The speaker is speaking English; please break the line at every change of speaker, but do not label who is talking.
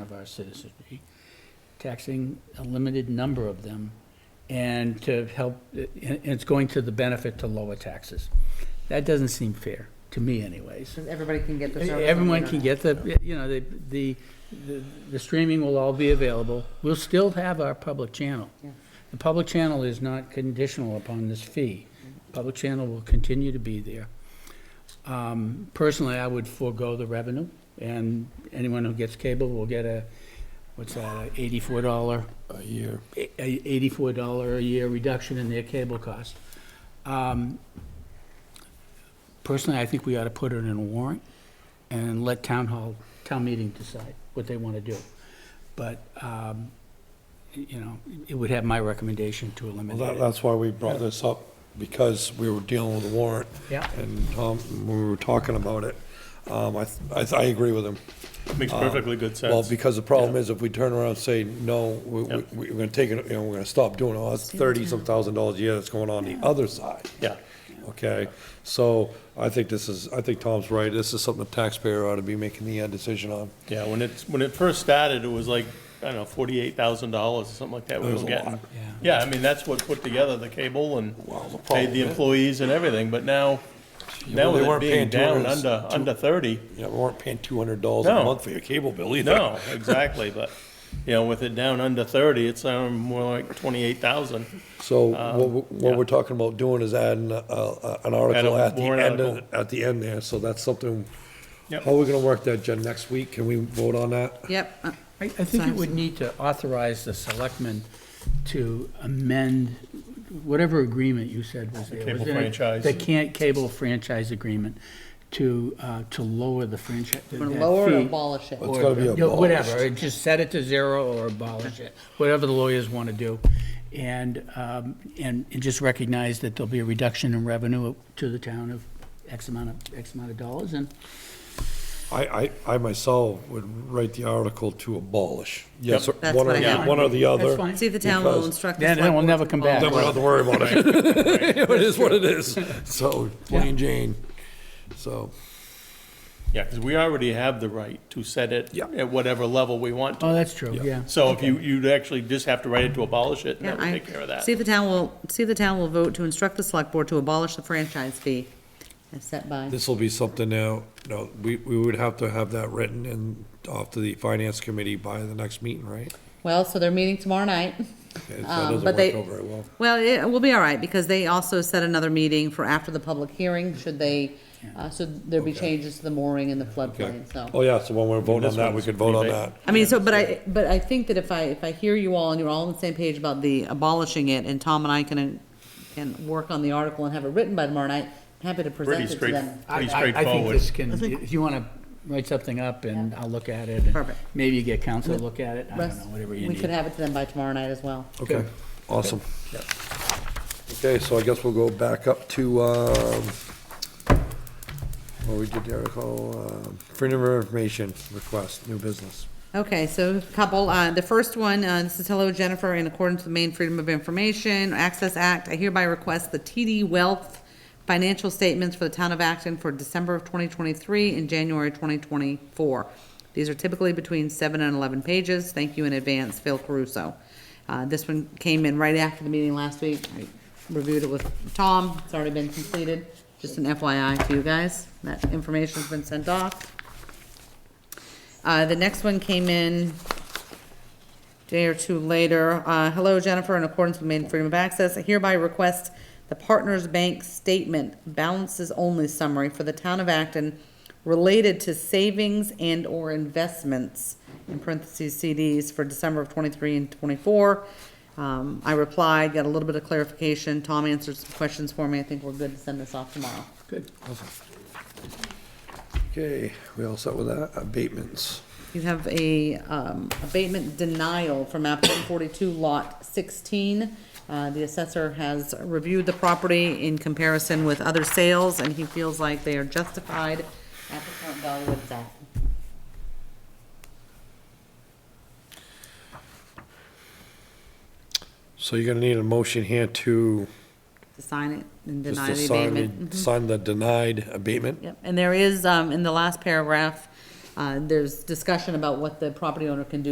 of our citizenry, taxing a limited number of them, and to help, and it's going to the benefit to lower taxes. That doesn't seem fair, to me anyways.
So everybody can get the service. on the
Everyone can
internet.
get the, you know, the, the, the- the streaming will all be available. We'll still have our public channel.
Yeah.
The public channel is not conditional upon this fee. Public channel will continue to be there. Um, Personally, I would forego the revenue, and anyone who gets cable will get a, what's that, a eighty-four dollar
a year.
a- a eighty-four dollar a year reduction in their cable cost. Um, Personally, I think we ought to put it in a warrant and let town hall, town meeting decide what they want to do. But, um, y- you know, it would have my recommendation to
Well, that,
eliminate it.
that's why we brought this up, because we were dealing with a warrant.
Yeah.
And Tom, when we were talking about it, um, I, th- I, th- I agree with him.
Makes perfectly good
Uh, Well,
sense.
because the problem is if we turn around and say, no, we, we-
Yep.
we're gonna take it, you know, we're gonna stop doing all that's thirty some thousand dollars a year that's going on the other side.
Yeah.
Okay, so I think this is, I think Tom's right. This is something the taxpayer ought to be making the uh, decision on.
Yeah, when it, when it first started, it was like, I don't know, forty-eight thousand dollars or something like that we
It was
were
a lot.
getting.
Yeah.
Yeah, I mean, that's what put together the cable and
Well, the
paid
problem
the
is-
employees and everything, but now,
Yeah,
now
well, they
with it
weren't
being
paying
down
200
under, under thirty,
Yeah, we weren't paying two hundred dollars a
No.
month for your cable bill either.
no, exactly, but, you know, with it down under thirty, it's um, more like twenty-eight thousand.
So what, we- what
yeah.
we're talking about doing is adding, uh, uh, an article at the
warrant
end, of-
article.
at the end there, so that's something.
Yep.
How are we gonna work that, Jen, next week? Can we vote on that?
Yep, uh,
I, I think it would need to authorize the selectmen to amend whatever agreement you said was there.
cable
wasn't it?
franchise.
The can't cable franchise agreement to, uh, to lower the franchise.
we're gonna lower or abolish it.
It's gotta be
You know, Whatever,
abolished.
just set it to zero or abolish it, whatever the lawyers want to do. And, um, and and just recognize that there'll be a reduction in revenue to the town of X amount of, X amount of dollars and
I, I, I myself would write the article to abolish. Yes, or-
That's
one or,
what I
the-
have.
one or the other.
that's fine.
See if the town will
Because-
instruct the
Then- then
select
we'll
board
never
to
come back.
Then we don't have
abolish
to worry about it. It is what it is. So, plain Jane. So,
Yeah, because we already have the right to set it
Yeah.
at whatever level we want to.
Oh, that's true, yeah.
So if you, you'd actually just have to write it to abolish it, and
Yeah,
that would
I-
take care of that.
See if the town will, see if the town will vote to instruct the select board to abolish the franchise fee as set by.
This will be something now, no, we, we would have to have that written and off to the finance committee by the next meeting, right?
Well, so they're meeting tomorrow night.
Okay,
Um,
so That doesn't
but
work
they-
out very well.
Well, it will be all right, because they also set another meeting for after the public hearing, should they, uh, so there'll be
Okay.
changes to the mooring and the
Okay.
floodplain, so.
Oh, yeah, so when we're voting on
this
that, we
one's
could vote on
pretty
that.
big.
I mean, so, but I, but I think that if I, if I hear you all and you're all on the same page about the abolishing it, and Tom and I can, can work on the article and have it written by tomorrow night, I'm happy to
Pretty
present it to
straight,
them.
pretty
I- I- I think
straightforward.
this can, if you want to write something up and I'll look at it. and
Perfect.
Maybe you get council to look at it, I don't
Russ,
know, whatever you
We could
need.
have it to them by tomorrow night as well.
Okay, awesome. Okay, so I guess we'll go back up to, um, what we did there, call, um, freedom of information request, new business.
Okay, so a couple, uh, the first one, uh, this is hello Jennifer, in accordance with the Maine Freedom of Information Access Act, I hereby request the TD Wealth financial statements for the town of Acton for December of twenty twenty-three and January twenty twenty-four. These are typically between seven and eleven pages, thank you in advance, Phil Caruso. Uh, this one came in right after the meeting last week, I reviewed it with Tom, it's already been completed, just an FYI to you guys, that information's been sent off. Uh, the next one came in day or two later. Uh, hello Jennifer, in accordance with Maine Freedom of Access, I hereby request the Partners Bank Statement Balances Only Summary for the Town of Acton related to savings and or investments, in parentheses CDs, for December of twenty-three and twenty-four. Um, I replied, got a little bit of clarification. Tom answered some questions for me. I think we're good to send this off tomorrow.
Good.
Okay, we all set with that? Abatements.
You have a um, abatement denial from map 142, lot 16. Uh, The assessor has reviewed the property in comparison with other sales, and he feels like they are justified at the current value it's at.
So you're gonna need a motion here to
To sign it and
just
deny
to
the
sign,
abatement. Mm-hmm.
the- sign the denied abatement.
Yep, and there is, um, in the last paragraph, Uh, There's discussion about what the property owner can do